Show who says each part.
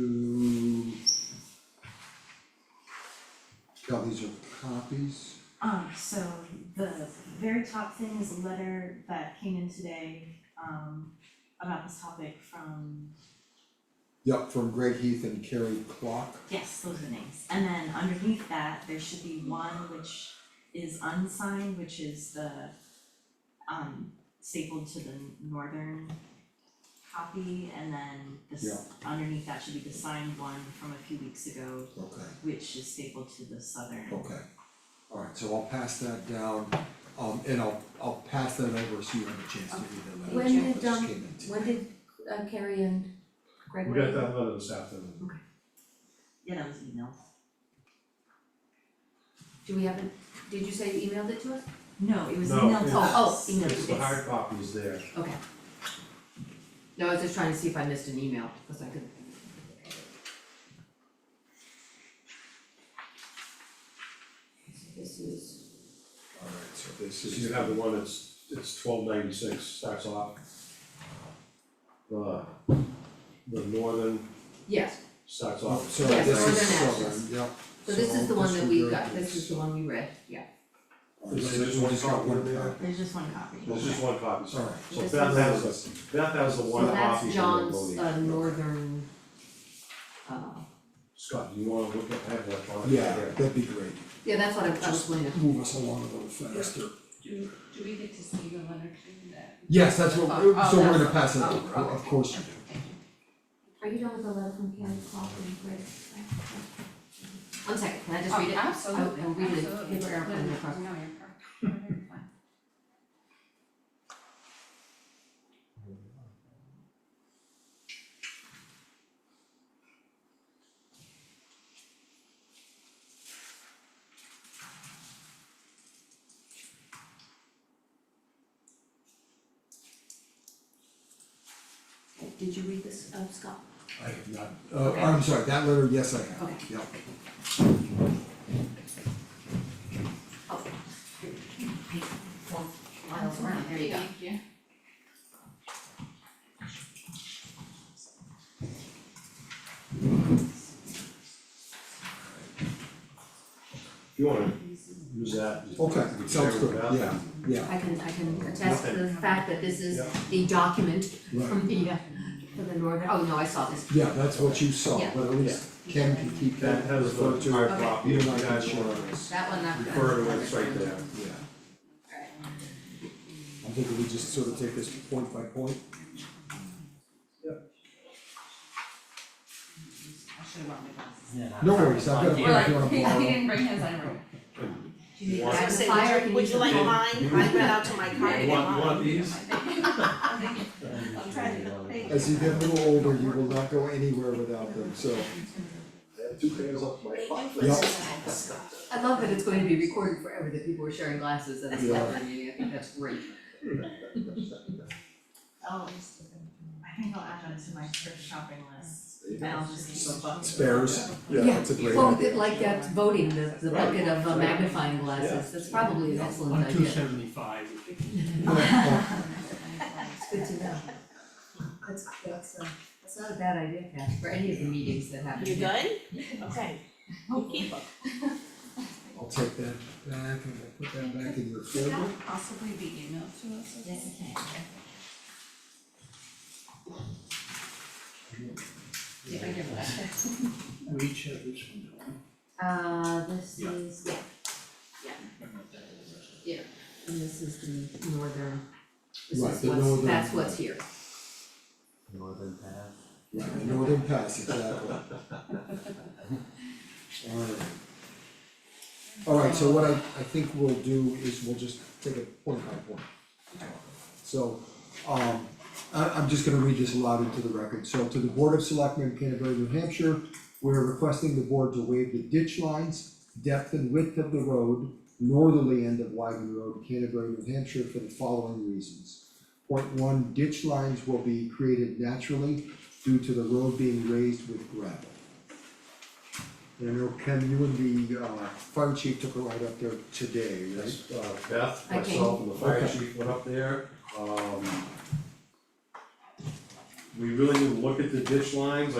Speaker 1: to. Cal, these are copies.
Speaker 2: Um, so the very top thing is a letter that came in today, um, about this topic from,
Speaker 1: Yep, from Greg Heath and Carrie Clock.
Speaker 2: yes, those are the names. And then underneath that, there should be one which is unsigned, which is the, um, stapled to the northern copy, and then this, underneath that should be the signed one from a few weeks ago,
Speaker 1: Okay.
Speaker 2: which is stapled to the southern.
Speaker 1: Okay, alright, so I'll pass that down, um, and I'll, I'll pass that over so you have a chance to read the letter.
Speaker 3: When
Speaker 1: that
Speaker 3: did,
Speaker 1: just
Speaker 3: um,
Speaker 1: came in today.
Speaker 3: When did uh, Carrie and Greg?
Speaker 4: We got that letter this afternoon.
Speaker 2: Yeah, that was emailed.
Speaker 3: Do we have it, did you say you emailed it to us?
Speaker 2: No, it was
Speaker 4: No,
Speaker 2: emailed to
Speaker 4: it's-
Speaker 2: us.
Speaker 3: oh, emailed.
Speaker 4: It's the hard copy is there.
Speaker 3: Okay. No, I was just trying to see if I missed an email, cause I could. So This is,
Speaker 1: Alright, so this
Speaker 4: So you
Speaker 1: is,
Speaker 4: have the one that's, it's twelve ninety-six, starts off. The, the northern
Speaker 3: yes,
Speaker 4: starts
Speaker 1: oh,
Speaker 4: off,
Speaker 1: so
Speaker 3: Yes,
Speaker 1: this is
Speaker 3: Northern
Speaker 1: Southern,
Speaker 3: Ashes.
Speaker 1: yep.
Speaker 3: so this is the one that we
Speaker 1: disregard
Speaker 3: got, this is the one we read, yeah.
Speaker 1: Alright,
Speaker 4: Is
Speaker 1: so
Speaker 4: there
Speaker 1: this
Speaker 4: just one
Speaker 1: one's got
Speaker 4: copy
Speaker 1: one
Speaker 4: in there?
Speaker 1: copy.
Speaker 2: There's just one copy.
Speaker 4: there's just one copy, so
Speaker 1: Alright,
Speaker 4: so
Speaker 3: This
Speaker 4: Beth
Speaker 3: is-
Speaker 4: has the, Beth has the one
Speaker 3: So
Speaker 4: copy
Speaker 3: that's
Speaker 4: from the
Speaker 3: John's
Speaker 4: voting.
Speaker 3: uh northern uh,
Speaker 4: Scott, do you wanna look at, I have electronic
Speaker 1: yeah,
Speaker 4: there.
Speaker 1: that'd be great,
Speaker 3: yeah, that's what I I was
Speaker 1: Just-
Speaker 3: looking at.
Speaker 1: move us along a little faster.
Speaker 5: Do, do we get to see the letter too that?
Speaker 1: Yes, that's what,
Speaker 5: Oh, oh,
Speaker 1: so we're gonna
Speaker 5: that's-
Speaker 1: pass it
Speaker 5: oh,
Speaker 1: over, of
Speaker 5: okay.
Speaker 1: course you do.
Speaker 3: Are you done with the letter from Karen Cloughlin, Greg? One second, can I just read it?
Speaker 5: Oh, Absolutely,
Speaker 3: I- I'll read it,
Speaker 5: absolutely.
Speaker 3: paper airplane
Speaker 5: No,
Speaker 3: across.
Speaker 5: No, you're correct. You're fine.
Speaker 3: Did you read this, uh, Scott?
Speaker 1: I have not, uh, I'm sorry, that letter, yes, I have,
Speaker 3: Okay.
Speaker 1: yep.
Speaker 3: Oh. Well, miles around, there you go.
Speaker 5: Thank you.
Speaker 4: If you wanna use that. just-
Speaker 1: Okay,
Speaker 4: we can
Speaker 1: sounds
Speaker 4: share with
Speaker 1: good,
Speaker 4: Beth.
Speaker 1: yeah, yeah,
Speaker 3: I can, I can attest to the
Speaker 5: Nothing.
Speaker 3: fact that this is
Speaker 4: Yeah.
Speaker 3: the document
Speaker 1: right,
Speaker 3: from the, uh, from the northern, oh, no, I saw this.
Speaker 1: yeah, that's what you saw,
Speaker 3: Yeah.
Speaker 1: but at least Ken can keep
Speaker 4: That
Speaker 1: that
Speaker 4: has the
Speaker 1: referred to.
Speaker 4: hard
Speaker 3: Okay.
Speaker 4: copy,
Speaker 1: You
Speaker 4: if
Speaker 1: and
Speaker 4: you
Speaker 1: I can
Speaker 4: guys
Speaker 1: share
Speaker 4: wanna
Speaker 1: this,
Speaker 3: That one, not.
Speaker 4: refer to it, it's right there.
Speaker 1: yeah.
Speaker 3: Alright.
Speaker 1: I'm thinking we just sort of take this point by point.
Speaker 5: I should have brought my glasses.
Speaker 1: No worries, I've got a
Speaker 5: Or like,
Speaker 1: printer on
Speaker 5: he
Speaker 1: borrow.
Speaker 5: didn't bring his, I brought.
Speaker 3: Do you need
Speaker 4: One.
Speaker 6: I was gonna
Speaker 3: that in the
Speaker 6: say,
Speaker 3: fire,
Speaker 6: would
Speaker 3: can
Speaker 6: you,
Speaker 3: you
Speaker 6: would
Speaker 3: use
Speaker 6: you like
Speaker 3: that?
Speaker 6: mine? I went out to my car to get
Speaker 4: Want-
Speaker 6: mine.
Speaker 4: want these?
Speaker 6: I'm trying to, thank
Speaker 1: As you get a little older, you will not go anywhere without them, so.
Speaker 4: Two pairs up my.
Speaker 6: Thank you for
Speaker 1: Yep.
Speaker 6: this.
Speaker 3: I love that it's going to be recorded forever, that people are sharing glasses at a
Speaker 1: Yeah.
Speaker 3: celebrity meeting, I think that's great.
Speaker 2: Oh, I think I'll add that to my trip shopping list, and I'll just keep a bucket.
Speaker 1: Spares, yeah,
Speaker 3: Yeah.
Speaker 1: that's a great
Speaker 3: Well,
Speaker 1: idea.
Speaker 3: it- like that voting, the the
Speaker 4: Right.
Speaker 3: bucket of uh, magnifying glasses, that's probably an excellent
Speaker 7: On two
Speaker 3: idea.
Speaker 7: seventy-five,
Speaker 3: It's good to know. That's that's uh, that's not a bad idea, Cass, for any of the meetings that happen.
Speaker 6: You
Speaker 3: here.
Speaker 6: good? Okay, you keep 'em.
Speaker 1: I'll take that back and I'll put that back in your
Speaker 5: Could
Speaker 1: folder.
Speaker 5: that possibly be emailed to us?
Speaker 2: Yes, it can.
Speaker 5: Yeah, I give that.
Speaker 7: we each have this one, don't we?
Speaker 3: Uh, this
Speaker 7: Yeah.
Speaker 3: is, yeah, and this is the northern, this
Speaker 1: Right,
Speaker 3: is
Speaker 1: the
Speaker 3: what's,
Speaker 1: northern-
Speaker 3: that's what's here.
Speaker 8: Northern Path.
Speaker 1: Right, the northern pass, exactly. Alright. Alright, so what I, I think we'll do is we'll just take it point by point. So, um, I, I'm just gonna read this aloud into the record. So to the Board of Selectmen, Canterbury, New Hampshire, we're requesting the board to waive the ditch lines, depth and width of the road, northerly end of Wyven Road, Canterbury, New Hampshire, for the following reasons. Point one, ditch lines will be created naturally due to the road being raised with gravel. And I know Ken, you and the uh fire chief took a ride up there today, right?
Speaker 4: Yes, uh, Beth,
Speaker 3: I came.
Speaker 4: myself, and the fire
Speaker 1: Okay.
Speaker 4: chief went up there, um. We really didn't look at the ditch lines,